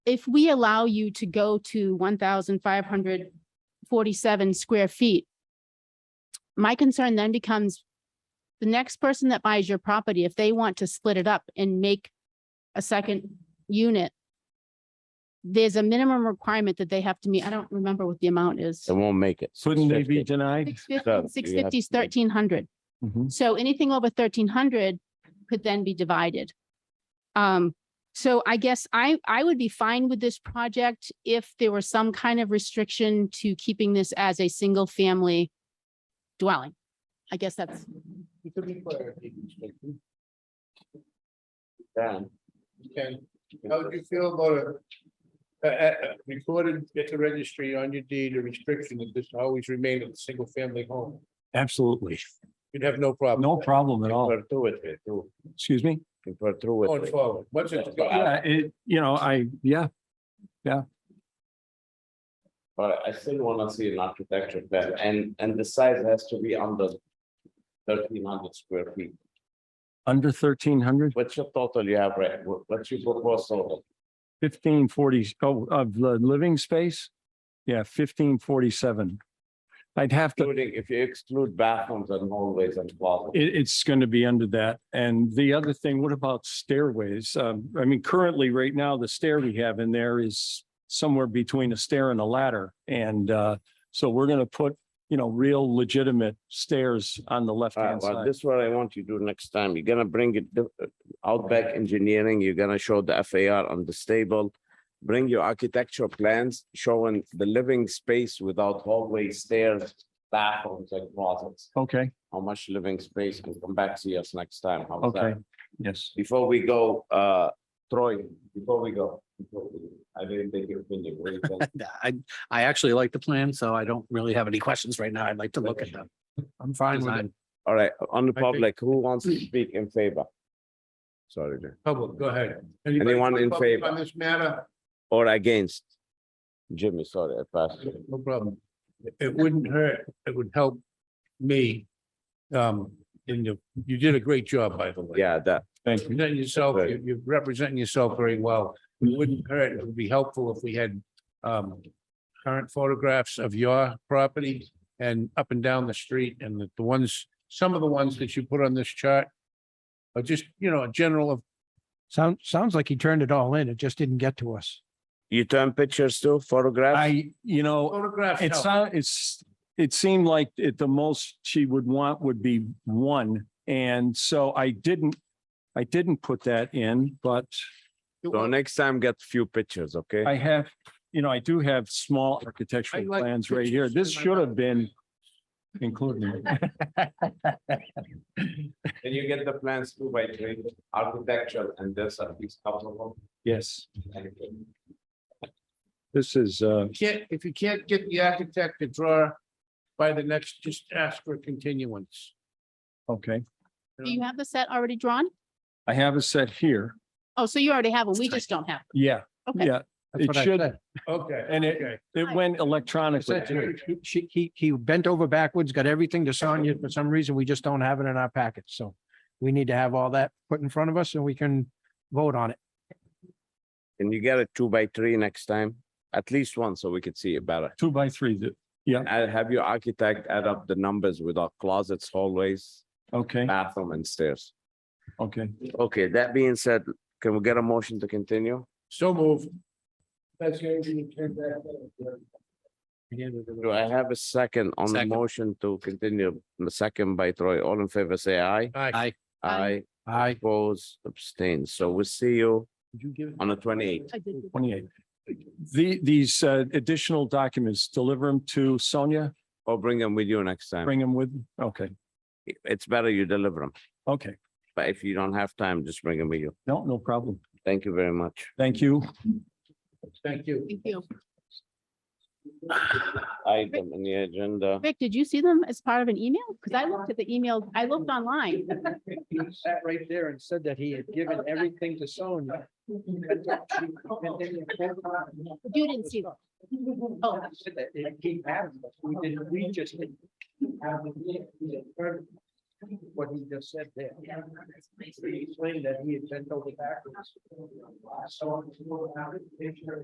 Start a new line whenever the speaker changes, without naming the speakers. if we allow you to go to one thousand five hundred forty-seven square feet, my concern then becomes the next person that buys your property, if they want to split it up and make a second unit, there's a minimum requirement that they have to meet. I don't remember what the amount is.
It won't make it.
Couldn't they be
650.
denied?
Six
so
fifty, six
you have
fifty,
to make-
thirteen hundred.
Mhm.
So anything over thirteen hundred could then be divided. Um, so I guess I, I would be fine with this project if there were some kind of restriction to keeping this as a single family dwelling. I guess that's,
You could require a deed restriction.
Done.
Okay, how would you feel about a a- a- a recorded at the registry on your deed, a restriction that this always remain a single family home?
Absolutely.
You'd have no problem.
No problem at all.
Put through with it, too.
Excuse me?
You put through
Going
with it.
forward, once Oh, it's.
Yeah, it, you know, I, yeah,
But I still wanna see an architecture plan and, and the size has to be under thirteen hundred square feet.
under thirteen hundred,
What's your total you have, right? What- What's your proposal?
fifteen forty, oh, of the living space? Yeah, fifteen forty-seven. I'd have to,
Including, if you exclude bathrooms and hallways and closets.
It, it's going to be under that. And the other thing, what about stairways? Um, I mean, currently, right now, the stair we have in there is somewhere between a stair and a ladder. And, uh, so we're going to put, you know, real legitimate stairs on the
Alright,
left-hand
Uh, well,
side.
this is what I want you to do next time. You're gonna bring it di- uh, Outback Engineering, you're gonna show the FAR on the stable. Bring your architectural plans showing the living space without hallway, stairs, bathrooms and closets.
Okay,
how much living space can come back to us next time. How's
okay,
that?
yes.
Before we go, uh, Troy, before we go, before we- I didn't think you're finished. What do you think?
I, I actually like the plan, so I don't really have any questions right now. I'd like to look at them.
I'm fine
Design.
All right, on the
I think-
public, who wants to speak in favor? Sorry, Jim.
Public, go ahead.
Anyone in
Public
favor?
On this matter,
or against? Jimmy, sorry, I passed. you.
no problem. It wouldn't hurt, it would help me. Um, in the, you did a great job, by the way.
Yeah, that,
Thank you.
Representing yourself,
Right.
you- you're representing yourself very well. It wouldn't hurt, it would be helpful if we had um current photographs of your property and up and down the street and the- the ones, some of the ones that you put on this chart are just, you know, a general of,
Sound, sounds like he turned it all in. It just didn't get to us.
you turn pictures too, photographs?
I, you know,
photographs.
it's,
help.
it's, it seemed like it, the most she would want would be one. And so I didn't, I didn't put that in, but
So next time get few pictures, okay?
I have, you know, I do have small architectural
I like
plans right here.
pictures.
This should have been included.
And you get the plans too by trade, architectural and there's at least couple
Yes,
of them.
this is, uh,
Can't, if you can't get the architect to draw by the next, just ask for continuance.
okay.
you know?
do you have the set already drawn?
I have a set here.
Oh, so you already have it. We just don't have.
Yeah,
Okay.
yeah.
That's
It
what I
should,
Okay.
And it-
okay.
it went electronically. too.
She, he, he bent over backwards, got everything to Sonia. For some reason, we just don't have it in our package. So we need to have all that put in front of us so we can vote on it.
Can you get a two by three next time? At least one, so we could see it better.
Two by three, th-
And I'll have your architect add up the numbers with our closets, hallways,
okay,
bathroom and stairs.
okay.
Okay, that being said, can we get a motion to continue?
So moved. That's the only thing you turned back.
Do I have a second on the
Second.
motion to continue? The second by Troy. All in favor, say aye.
Aye.
Aye.
Aye.
Aye.
Aye.
Oppose, abstain. So we'll see you on the twenty-eighth.
I did.
Twenty-eight. The, these uh, additional documents, deliver them to Sonia,
Or bring them with you next time.
bring them with, okay,
It's better you deliver them,
okay.
but if you don't have time, just bring them with you.
No, no problem.
Thank you very much.
Thank you.
Thank you.
Thank you.
Item in the agenda.
Rick, did you see them as part of an email? Because I looked at the email, I looked online.
He sat right there and said that he had given everything to Sonia.
You didn't see them. Oh.
It came out, we didn't, we just didn't.
what he just said there. He explained that he had bent over backwards. So,